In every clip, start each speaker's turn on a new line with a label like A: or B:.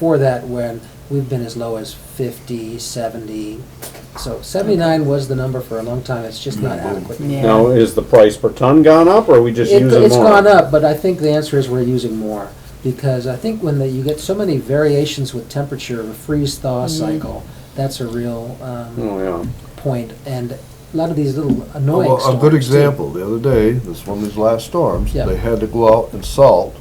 A: for that when we've been as low as 50, 70. So 79 was the number for a long time, it's just not adequate.
B: Yeah.
C: Now, is the price per ton gone up, or are we just
A: It-
C: using more?
A: It's gone up, but I think the answer is we're using more, because I think when the- you get so many variations with temperature, a freeze-thaw cycle, that's a real um,
C: Oh, yeah.
A: point, and a lot of these little annoying
D: Oh, Well,
A: storms.
D: A good
A: too.
D: example, the other day, this one of these last storms,
A: Yeah.
D: they had to go out and salt,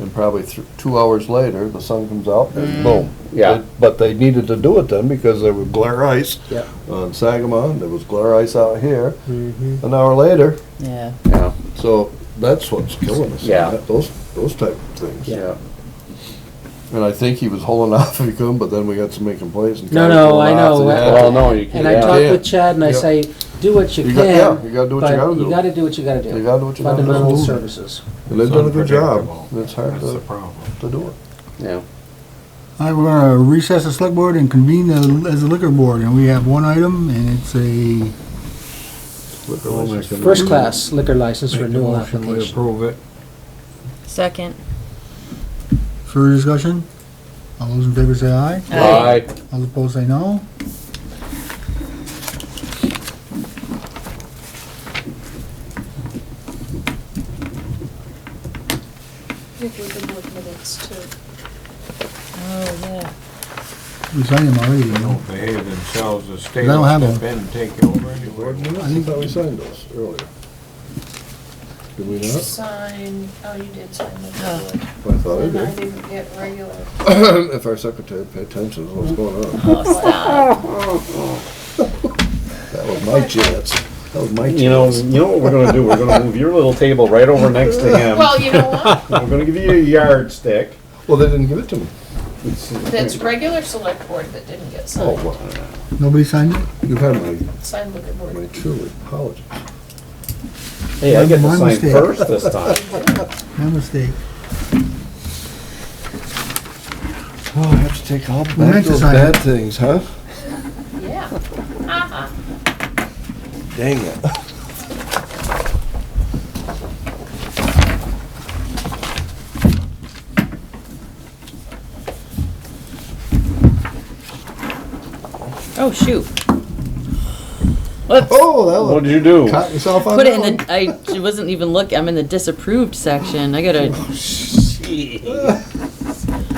D: and probably thr- two hours later, the sun comes out and
A: Mm.
D: boom.
C: Yeah.
D: But they needed to do it then because there was glare ice
A: Yep.
D: on Sagamon, there was glare ice out here,
A: Mhm.
D: an hour later,
B: Yeah.
C: Yeah,
D: so that's what's killing us.
C: Yeah.
D: that- Those, those type of things.
C: yeah.
D: And I think he was holding off if he could, but then we got so many complaints and.
A: No,
D: guys
A: no, I
D: holding off
A: know.
D: and had to-
C: Well, no, you can't.
A: And I
C: yeah.
A: talked
D: Yeah.
A: with Chad and I
D: Yeah.
A: say, do what you
D: You got- yeah,
A: can,
D: you gotta do what you
A: but
D: gotta
A: you
D: do.
A: gotta do what you gotta do.
D: You gotta do what you gotta do.
A: Fundamental services.
D: And they've done a good job,
E: Unpredictable.
D: it's hard
E: That's the
D: to,
E: problem.
D: to do it.
C: Yeah.
F: All right, we're gonna uh, recess the select board and convene the- as a liquor board, and we have one item, and it's a,
A: First class liquor license
E: Make the
A: renewal
E: motion, we
A: application.
E: Approve it.
B: Second.
F: further discussion? All those in favor say aye,
C: Aye.
F: all opposed say no.
G: Give you the board minutes to,
B: Oh, yeah.
F: We signed them already,
E: They
F: you know.
E: don't behave themselves, the state
F: They don't have
E: will
F: them.
E: step in and take over anyway.
D: I thought we signed those earlier. Did we
G: you
D: not?
G: sign, oh, you did sign the
B: Oh.
G: board.
D: I thought I
G: And I
D: did.
G: didn't get regular.
D: If our secretary paid attention to what's going on. That was my chance. That was my
C: You know,
D: chance.
C: you know what we're gonna do? We're gonna move your little table right over next to him.
G: Well, you know what?
C: We're gonna give you a yardstick.
D: Well, they didn't give it to me.
G: That's regular select board that didn't get
D: Oh,
G: signed.
D: well,
F: Nobody signed it?
D: you had my,
G: Signed liquor
D: my
G: board.
D: truly apologies.
C: Hey, I get to
F: My
C: sign
F: mistake.
C: first this time.
F: My mistake.
D: Oh, I have to take all
F: We meant
D: back
F: to
D: those
F: sign
D: bad
F: it.
D: things, huh?
G: Yeah. Uh-huh.
D: Dang it.
B: Oh, shoot. Whoops.
D: Oh,
C: What
D: that
C: did you do?
D: one caught yourself on
B: Put
D: that
B: it in
D: one.
B: the, I wasn't even looking, I'm in the disapproved section. I gotta, look at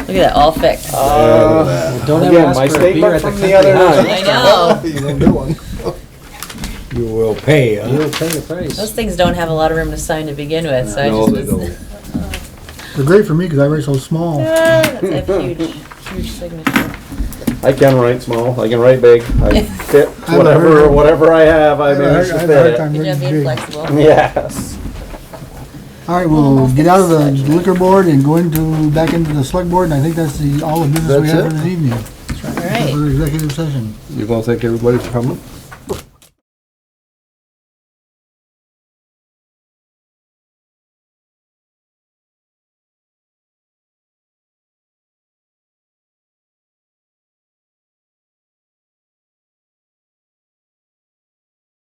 B: that, all fixed.
C: Uh,
A: Well, Don't ever
C: Again,
A: ask
C: my
A: for a beer
C: statement
A: at the
C: from the
A: country
C: other
A: house.
C: night.
B: I know.
D: You didn't do one.
E: You will pay, huh?
A: You'll pay the
B: Those
A: price.
B: things don't have a lot of room to sign to begin with, so I
D: No,
B: just
D: they
B: was.
D: don't.
F: They're great for me, because I write so small.
B: Ah, That's a huge, huge signature.
C: I can write small, I can write big, I fit
F: a
C: whatever,
F: hard-
C: whatever I have,
F: I
C: I
F: have a
C: manage
F: hard- I
C: to
F: have a hard
C: fit
F: time
C: it.
B: Good job
F: reading
B: being
F: big.
B: flexible.
C: Yes.
F: All right, we'll get out of the liquor board and go into, back into the select board, and I think that's the, all the business we
D: That's
F: have
D: it?
F: for this evening.
B: All right.
F: For executive session.
D: You gonna thank everybody for coming?